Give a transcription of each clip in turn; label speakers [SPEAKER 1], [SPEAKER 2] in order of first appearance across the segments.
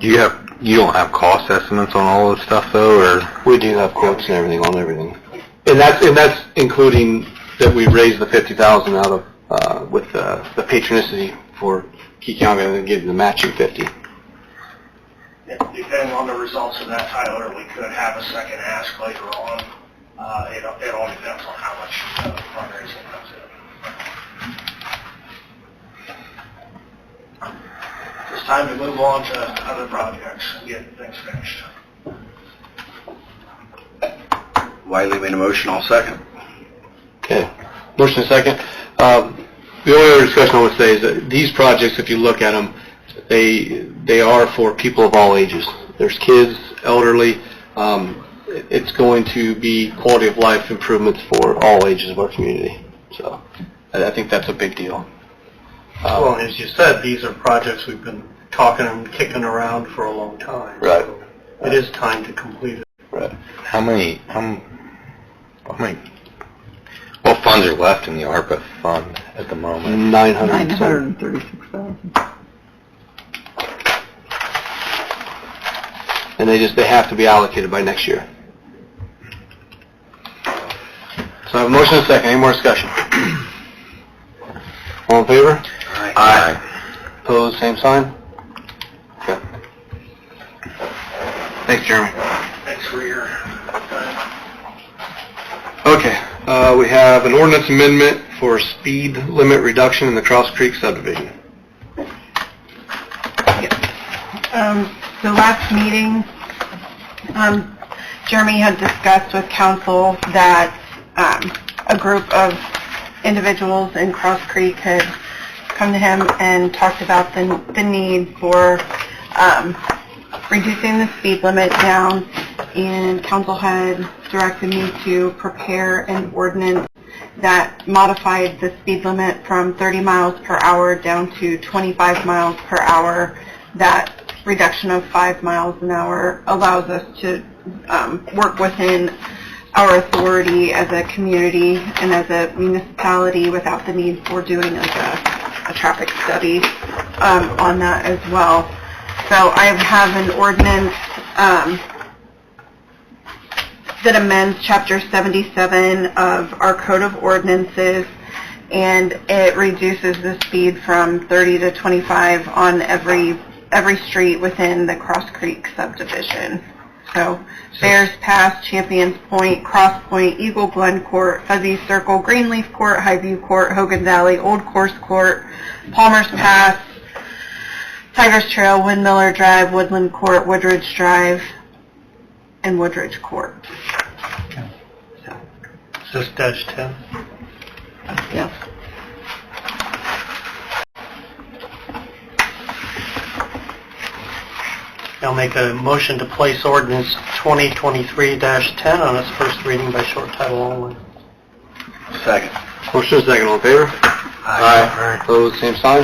[SPEAKER 1] You have, you don't have cost estimates on all this stuff though, or?
[SPEAKER 2] We do have quotes and everything on everything. And that's, and that's including that we raised the fifty thousand out of, uh, with, uh, the patronicity for Keyonga and then give the matching fifty.
[SPEAKER 3] Depending on the results of that, Tyler, we could have a second ask later on. Uh, It it all depends on how much uh, fundraising comes in. It's time to move on to other projects and get things finished.
[SPEAKER 4] Wiley made a motion, I'll second.
[SPEAKER 2] Okay. Motion second. Um, the only other discussion I would say is that these projects, if you look at them, they, they are for people of all ages. There's kids, elderly, um, it- it's going to be quality of life improvements for all ages of our community. So, I, I think that's a big deal. Uh,
[SPEAKER 5] Well, as you said, these are projects we've been talking and kicking around for a long time.
[SPEAKER 2] Right.
[SPEAKER 5] So It is time to complete it.
[SPEAKER 2] Right.
[SPEAKER 1] How many, how, m- how many, what funds are left in the ARPA fund at the moment?
[SPEAKER 2] Nine
[SPEAKER 6] Nine hundred
[SPEAKER 2] hundred.
[SPEAKER 6] and thirty-six thousand.
[SPEAKER 2] And they just, they have to be allocated by next year. So I have a motion and a second. Any more discussion? All in favor?
[SPEAKER 1] Aye.
[SPEAKER 2] Opposed, same sign? Okay. Thanks, Jeremy.
[SPEAKER 3] Thanks for your uh,
[SPEAKER 2] Okay, uh, we have an ordinance amendment for speed limit reduction in the Cross Creek subdivision.
[SPEAKER 6] Um, the last meeting, um, Jeremy had discussed with council that, um, a group of individuals in Cross Creek had come to him and talked about the, the need for, um, reducing the speed limit down, and council had directed me to prepare an ordinance that modified the speed limit from 30 miles per hour down to 25 miles per hour. That reduction of five miles an hour allows us to um, work within our authority as a community and as a municipality without the need for doing like a, a traffic study um, on that as well. So I have an ordinance um, that amends Chapter 77 of our Code of Ordinances, and it reduces the speed from 30 to 25 on every, every street within the Cross Creek subdivision. So Bears Pass, Champions Point, Cross Point, Eagle Glen Court, Fuzzy Circle, Greenleaf Court, Highview Court, Hogan Valley, Old Course Court, Palmer's Pass, Tigers Trail, Windmiller Drive, Woodland Court, Woodridge Drive, and Woodridge Court.
[SPEAKER 5] Is this dash 10?
[SPEAKER 6] Yes.
[SPEAKER 5] I'll make a motion to place ordinance 2023-10 on its first reading by short title only.
[SPEAKER 4] Second.
[SPEAKER 2] Motion is second, all in favor? Aye. Opposed, same sign?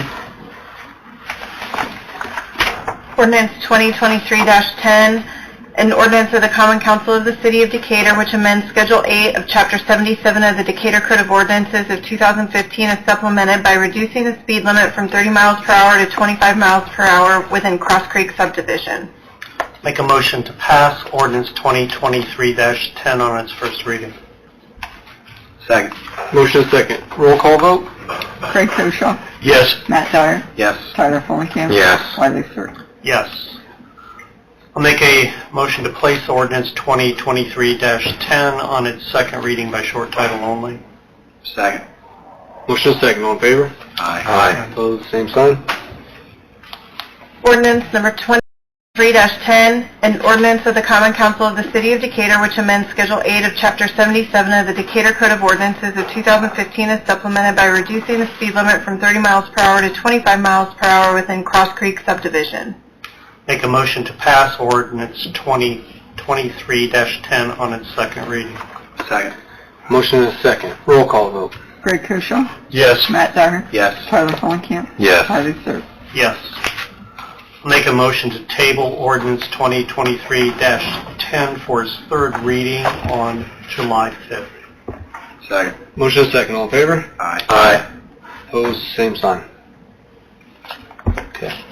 [SPEAKER 6] Ordinance 2023-10, an ordinance of the Common Council of the City of Decatur which amends Schedule 8 of Chapter 77 of the Decatur Code of Ordinances of 2015 as supplemented by reducing the speed limit from 30 miles per hour to 25 miles per hour within Cross Creek subdivision.
[SPEAKER 5] Make a motion to pass ordinance 2023-10 on its first reading.
[SPEAKER 4] Second.
[SPEAKER 2] Motion is second. Roll call vote?
[SPEAKER 6] Craig Koshaw.
[SPEAKER 5] Yes.
[SPEAKER 6] Matt Dyer.
[SPEAKER 4] Yes.
[SPEAKER 6] Tyler Fulenkamp.
[SPEAKER 1] Yes.
[SPEAKER 6] Wiley Sir.
[SPEAKER 5] Yes. I'll make a motion to place ordinance 2023-10 on its second reading by short title only.
[SPEAKER 4] Second.
[SPEAKER 2] Motion is second, all in favor?
[SPEAKER 4] Aye.
[SPEAKER 2] Opposed, same sign?
[SPEAKER 6] Ordinance number 23-10, an ordinance of the Common Council of the City of Decatur which amends Schedule 8 of Chapter 77 of the Decatur Code of Ordinances of 2015 as supplemented by reducing the speed limit from 30 miles per hour to 25 miles per hour within Cross Creek subdivision.
[SPEAKER 5] Make a motion to pass ordinance 2023-10 on its second reading.
[SPEAKER 4] Second.
[SPEAKER 2] Motion is second. Roll call vote?
[SPEAKER 6] Greg Koshaw.
[SPEAKER 5] Yes.
[SPEAKER 6] Matt Dyer.
[SPEAKER 4] Yes.
[SPEAKER 6] Tyler Fulenkamp.
[SPEAKER 1] Yes.
[SPEAKER 6] Sir.
[SPEAKER 5] Yes. Make a motion to table ordinance 2023-10 for its third reading on July 5th.
[SPEAKER 4] Second.
[SPEAKER 2] Motion is second, all in favor?
[SPEAKER 4] Aye.
[SPEAKER 1] Aye.
[SPEAKER 2] Opposed, same sign. Okay.